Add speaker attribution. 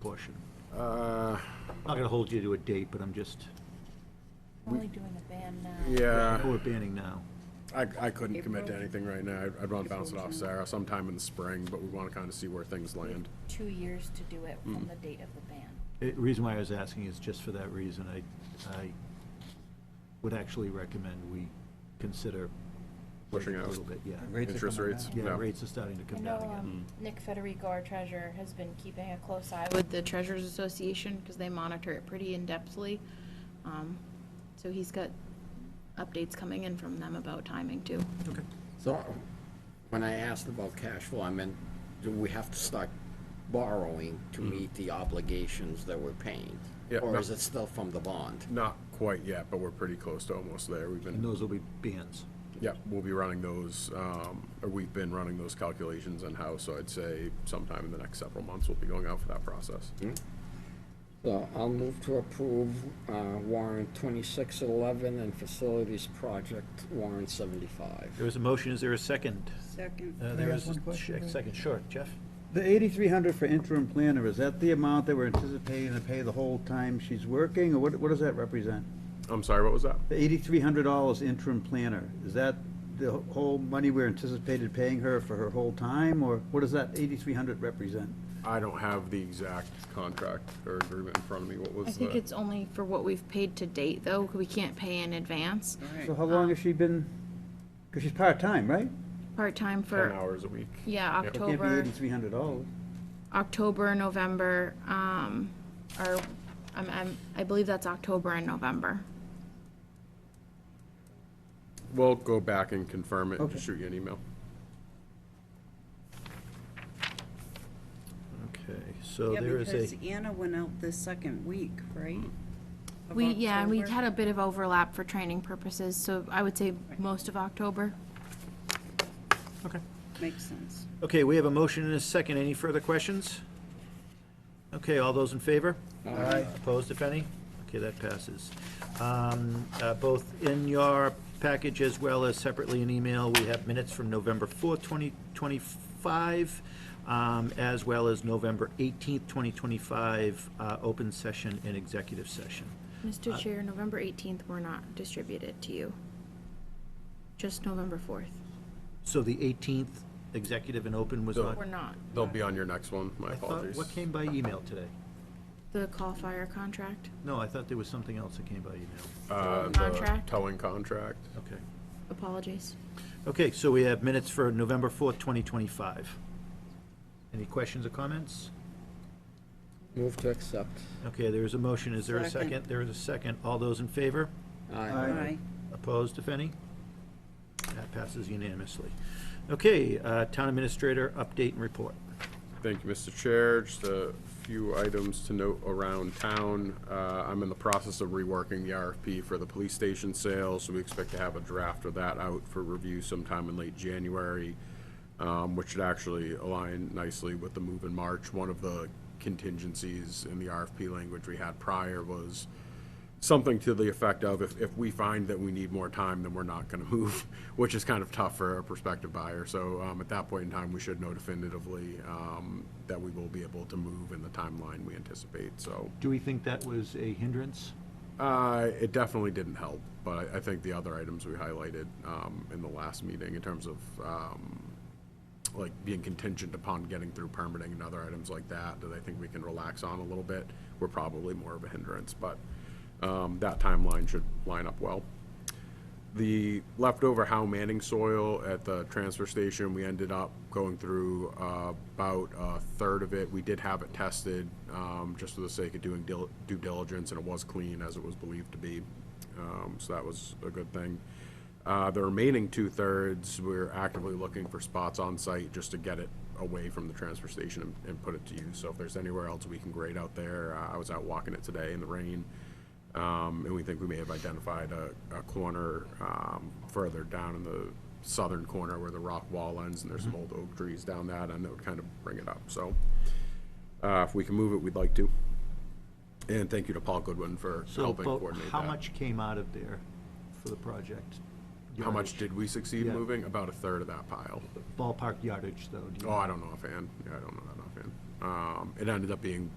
Speaker 1: portion?
Speaker 2: Uh,
Speaker 1: I'm not gonna hold you to a date, but I'm just,
Speaker 3: We're only doing the band now.
Speaker 2: Yeah,
Speaker 1: we're banning now.
Speaker 2: I, I couldn't commit to
Speaker 3: April.
Speaker 2: anything right now. I'd- I'd want to bounce it off Sarah sometime in the spring, but we want to kind of see where things
Speaker 3: We have
Speaker 2: land.
Speaker 3: Two years to do it from the date of the ban.
Speaker 1: The reason why I was asking is just for that reason. I, I would actually recommend we consider
Speaker 2: Pushing
Speaker 1: waiting
Speaker 2: out.
Speaker 1: A little bit, yeah.
Speaker 4: Rates are
Speaker 2: Interest
Speaker 4: coming
Speaker 2: rates.
Speaker 4: down.
Speaker 1: Yeah,
Speaker 2: No.
Speaker 1: rates are starting to
Speaker 3: I
Speaker 1: come
Speaker 3: know
Speaker 1: down again.
Speaker 3: um, Nick Federico, our treasurer, has been keeping a close eye with the Treasurers Association because they monitor it pretty in-depthly. Um, So he's got updates coming in from them about timing too.
Speaker 1: Okay.
Speaker 4: So, when I asked about cash flow, I meant, do we have to start borrowing to meet the obligations that we're paying?
Speaker 2: Yeah,
Speaker 4: Or
Speaker 2: no.
Speaker 4: is it still from the bond?
Speaker 2: Not quite yet, but we're pretty close to almost there. We've
Speaker 1: And
Speaker 2: been,
Speaker 1: those will be bans.
Speaker 2: yeah, we'll be running those, um, or we've been running those calculations in-house, so I'd say sometime in the next several months, we'll be going out for that process.
Speaker 4: So I'll move to approve uh, warrant twenty-six eleven and facilities project warrant seventy-five.
Speaker 1: There is a motion, is there a second?
Speaker 5: Second.
Speaker 1: Uh,
Speaker 6: I
Speaker 1: There
Speaker 6: ask
Speaker 1: is
Speaker 6: one
Speaker 1: a
Speaker 6: question,
Speaker 1: ch-
Speaker 6: Ray?
Speaker 1: second, sure, Jeff?
Speaker 6: The eighty-three hundred for interim planner, is that the amount that we're anticipating to pay the whole time she's working, or what, what does that represent?
Speaker 2: I'm sorry, what was that?
Speaker 6: The eighty-three hundred dollars interim planner, is that the whole money we're anticipated paying her for her whole time, or what does that eighty-three hundred represent?
Speaker 2: I don't have the exact contract or agreement in front of me. What
Speaker 3: I
Speaker 2: was
Speaker 3: think
Speaker 2: the?
Speaker 3: it's only for what we've paid to date though, 'cause we can't pay in advance.
Speaker 6: So
Speaker 5: um,
Speaker 6: how long has she been, because she's part-time, right?
Speaker 3: Part-time
Speaker 2: Ten
Speaker 3: for,
Speaker 2: hours a week.
Speaker 3: yeah,
Speaker 2: Yep.
Speaker 6: So it Can't be
Speaker 3: October.
Speaker 6: eighty-three hundred dollars.
Speaker 3: October, November, um, or, I'm, I'm, I believe that's October and November.
Speaker 2: We'll go back and confirm it and just
Speaker 6: Okay.
Speaker 2: shoot you an email.
Speaker 1: Okay, so
Speaker 5: Yeah,
Speaker 1: there is a,
Speaker 5: because e- Anna went out the second week, right? Of
Speaker 3: We, yeah, and we
Speaker 5: October?
Speaker 3: had a bit of overlap for training purposes, so I would say most of October.
Speaker 1: okay.
Speaker 5: Makes sense.
Speaker 1: Okay, we have a motion and a second. Any further questions? Okay, all those in favor? Aye. Opposed, if any? Okay, that passes. Um, uh, Both in your package as well as separately in email, we have minutes from November 4th, 2025, um, as well as November 18th, 2025, uh, open session and executive session.
Speaker 3: Mr. Chair, November 18th were not distributed to you. Just November 4th.
Speaker 1: So the 18th, executive and open was
Speaker 2: So-
Speaker 1: on?
Speaker 3: We're not.
Speaker 2: They'll be on your next one. My
Speaker 1: I thought,
Speaker 2: apologies.
Speaker 1: what came by email today?
Speaker 3: The call fire contract,
Speaker 1: No, I thought there was something else that came by email.
Speaker 2: Uh, the
Speaker 3: Contract.
Speaker 2: Towing contract.
Speaker 1: Okay.
Speaker 3: apologies.
Speaker 1: Okay, so we have minutes for November 4th, 2025. Any questions or comments?
Speaker 4: Move to accept.
Speaker 1: Okay, there is a motion. Is there a
Speaker 5: Second.
Speaker 1: second? There is a second. All those in favor?
Speaker 4: Aye.
Speaker 6: Aye.
Speaker 5: Aye.
Speaker 1: Opposed, if any? That passes unanimously. Okay, uh, Town Administrator, update and report.
Speaker 2: Thank you, Mr. Chair. Just a few items to note around town. Uh, I'm in the process of reworking the RFP for the police station sale, so we expect to have a draft of that out for review sometime in late January, um, which should actually align nicely with the move in March. One of the contingencies in the RFP language we had prior was something to the effect of, if, if we find that we need more time, then we're not gonna move, which is kind of tough for a prospective buyer. So, um, at that point in time, we should know definitively, um, that we will be able to move in the timeline we anticipate, so.
Speaker 1: Do we think that was a hindrance?
Speaker 2: Uh, it definitely didn't help, but I, I think the other items we highlighted, um, in the last meeting in terms of, um, like being contingent upon getting through permitting and other items like that, that I think we can relax on a little bit, were probably more of a hindrance, but, um, that timeline should line up well. The leftover Howe Manning soil at the transfer station, we ended up going through uh, about a third of it. We did have it tested, um, just for the sake of doing dil- due diligence, and it was clean as it was believed to be. Um, So that was a good thing. Uh, The remaining two-thirds, we're actively looking for spots on site just to get it away from the transfer station and- and put it to use. So if there's anywhere else we can grade out there, uh, I was out walking it today in the rain. Um, and we think we may have identified a, a corner, um, further down in the southern corner where the rock wall ends and there's some
Speaker 1: Mm-hmm.
Speaker 2: old oak trees down that and that would kind of bring it up, so. Uh, if we can move it, we'd like to. And thank you to Paul Goodwin for
Speaker 1: So,
Speaker 2: helping
Speaker 1: but
Speaker 2: coordinate
Speaker 1: how
Speaker 2: that.
Speaker 1: much came out of there for the project?
Speaker 2: How much
Speaker 1: Yardage.
Speaker 2: did we succeed
Speaker 1: Yeah.
Speaker 2: moving? About a third of that pile.
Speaker 1: Ballpark yardage, though. do you-
Speaker 2: Oh, I don't know offhand. Yeah, I don't know that offhand. Um, it ended up being